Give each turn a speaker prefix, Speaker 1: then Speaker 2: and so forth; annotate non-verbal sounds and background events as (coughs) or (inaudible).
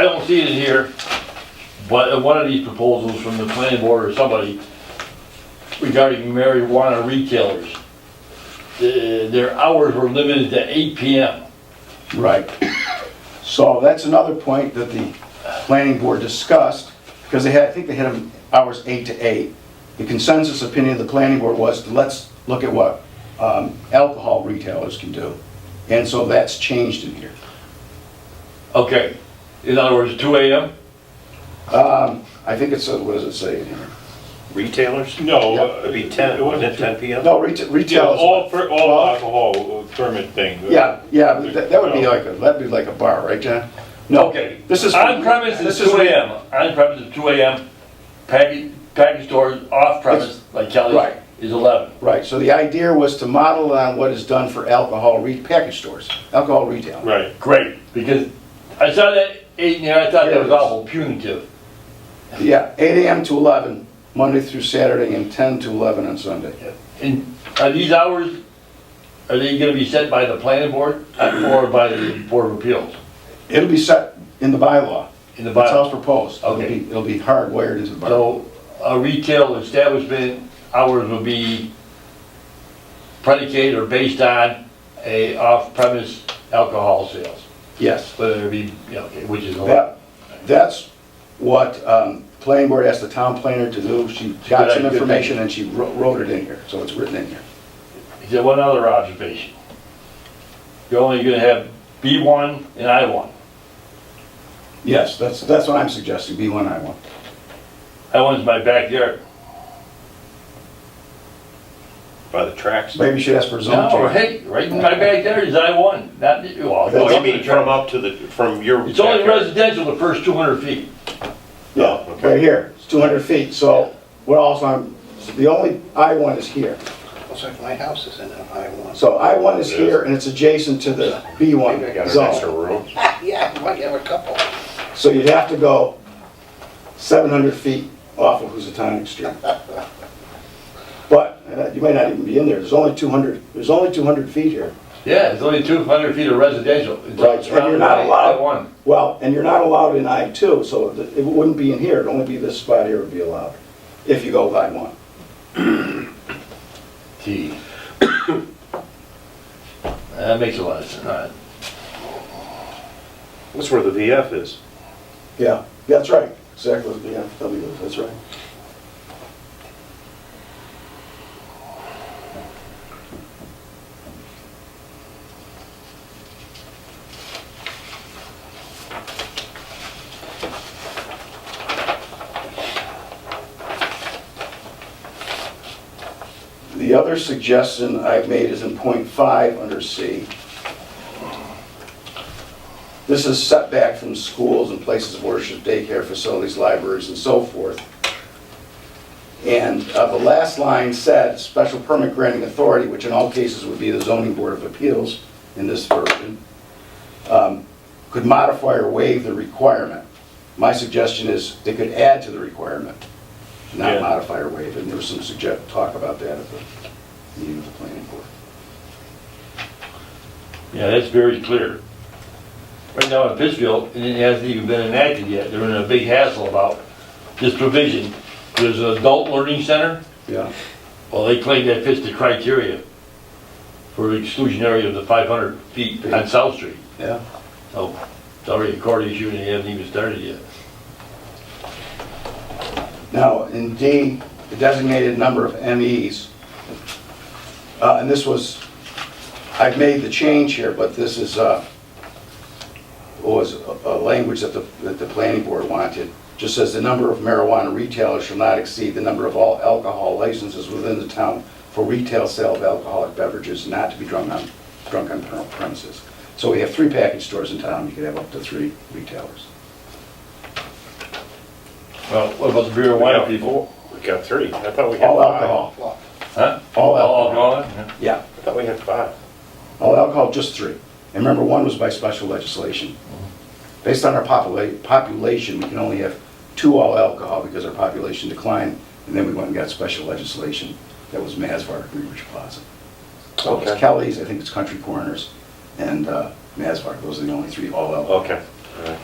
Speaker 1: don't see it here, but in one of these proposals from the planning board or somebody regarding marijuana retailers, the- their hours were limited to eight PM.
Speaker 2: Right. So that's another point that the planning board discussed, because they had, I think they had them hours eight to eight. The consensus opinion of the planning board was, let's look at what um, alcohol retailers can do. And so that's changed in here.
Speaker 1: Okay, in other words, two AM?
Speaker 2: Um, I think it's, uh, what does it say in here?
Speaker 3: Retailers?
Speaker 4: No.
Speaker 2: Yeah,
Speaker 4: uh,
Speaker 3: It'd be 10,
Speaker 4: it wasn't
Speaker 3: wasn't it 10 p.m.?
Speaker 2: No, retail,
Speaker 4: Yeah,
Speaker 2: retail. is-
Speaker 4: all, per- all
Speaker 2: Well-
Speaker 4: alcohol permit thing.
Speaker 2: Yeah, yeah, but that that would be
Speaker 4: No.
Speaker 2: like, a that'd be like a bar, right, John? No,
Speaker 1: Okay.
Speaker 2: this is.
Speaker 1: On premise is
Speaker 2: this is-
Speaker 1: two AM, on premise is two AM, package, package stores, off premise, like Kelly's,
Speaker 2: Right.
Speaker 1: is eleven.
Speaker 2: Right, so the idea was to model on what is done for alcohol re, package stores, alcohol retail.
Speaker 4: Right.
Speaker 1: Great, because I saw that eight in there, I thought that was awful punitive.
Speaker 2: Yeah, 8 AM to 11, Monday through Saturday, and 10 to 11 on Sunday.
Speaker 1: And are these hours, are they gonna be set by the planning board or by the board of appeals
Speaker 2: It'll be set in the bylaw.
Speaker 1: in the
Speaker 2: That's how
Speaker 1: bylaw?
Speaker 2: it's proposed. It'll
Speaker 1: Okay.
Speaker 2: be, it'll be hardwired into the bylaw.
Speaker 1: So a retail establishment hours will be predicated or based on a off-premise alcohol sales,
Speaker 2: Yes.
Speaker 1: whether it be, you know, which is eleven.
Speaker 2: That, that's what, um, planning board asked the town planner to do. She got
Speaker 1: Good
Speaker 2: some
Speaker 1: idea.
Speaker 2: information and she wro- wrote it in here, so it's written in here.
Speaker 1: Is there one other observation? You're only gonna have B one and I one.
Speaker 2: Yes, that's, that's what I'm suggesting, B1, I1.
Speaker 1: I one's my backyard.
Speaker 3: By the tracks?
Speaker 2: Maybe you should ask for a zone
Speaker 1: No,
Speaker 2: change.
Speaker 1: Oh, hey, right in my backyard is I one, not, well,
Speaker 2: That's-
Speaker 1: no,
Speaker 3: Oh, You
Speaker 1: up to
Speaker 3: mean
Speaker 1: the
Speaker 3: from
Speaker 1: track.
Speaker 3: up to the, from your...
Speaker 1: It's only
Speaker 3: backyard?
Speaker 1: residential the first two hundred feet.
Speaker 2: Yeah,
Speaker 3: okay.
Speaker 2: right here, it's 200 feet, so we're also, on- the only I1 is here.
Speaker 5: Also, if my house is in an I one.
Speaker 2: So I1 is here, and it's adjacent to the
Speaker 3: Maybe I
Speaker 2: B1
Speaker 3: got an extra
Speaker 2: zone.
Speaker 3: room.
Speaker 5: Yeah, we might have a couple.
Speaker 2: So you'd have to go 700 feet off of Housatonic Street. But uh, you might not even be in there, there's only 200, there's only 200 feet here.
Speaker 1: Yeah, it's only two hundred feet of residential. It's
Speaker 2: Right, and you're
Speaker 1: surrounded
Speaker 2: not
Speaker 1: by
Speaker 2: allowed-
Speaker 1: I1.
Speaker 2: Well, and you're not allowed in I2, so it it wouldn't be in here, it'd only be this spot here would be allowed, if you go with I1.
Speaker 1: Gee. (coughs) That makes a lot of sense, all right.
Speaker 3: That's where the VF is.
Speaker 2: Yeah, that's right, exactly, yeah, W, that's right. The other suggestion I've made is in point five under C. This is setback from schools and places of worship, daycare facilities, libraries, and so forth. And uh, the last line said, "Special permit granting authority," which in all cases would be the zoning board of appeals in this version, um, "could modify or waive the requirement." My suggestion is they could add to the requirement, not
Speaker 4: Yeah.
Speaker 2: modify or waive. And there was some suggest, talk about that at the meeting of the planning board.
Speaker 1: Yeah, that's very clear. Right now in Pittsfield, and it hasn't even been enacted yet, they're in a big hassle about this provision. There's an adult learning center,
Speaker 2: Yeah.
Speaker 1: well, they claim that fits the criteria for exclusionary of the five hundred feet on South Street. Oh,
Speaker 2: Yeah.
Speaker 1: So, it's already a court issue and they haven't even started yet.
Speaker 2: Now, in D, the designated number of MEs, uh, and this was, I've made the change here, but this is, uh, was a a language that the, that the planning board wanted. Just says the number of marijuana retailers shall not exceed the number of all alcohol licenses within the town for retail sale of alcoholic beverages not to be drunk on, drunk on premises. So we have three package stores in town, you could have up to three retailers.
Speaker 1: Well, what about the beer and wine people?
Speaker 3: We got three. I thought we had five.
Speaker 2: All alcohol,
Speaker 5: Well,
Speaker 1: Huh?
Speaker 2: All
Speaker 1: alcohol? yeah.
Speaker 2: yeah.
Speaker 3: I thought we had five.
Speaker 2: All alcohol, just three. And remember, one was by special legislation. Based on our popula- population, we can only have two all alcohol because our population declined, and then we went and got special legislation that was Masvar, Greenwich Plaza. So it's
Speaker 3: Okay.
Speaker 2: Kelly's, I think it's Country Corners, and uh, Masvar, those are the only three all alcohol.
Speaker 3: Okay. All right.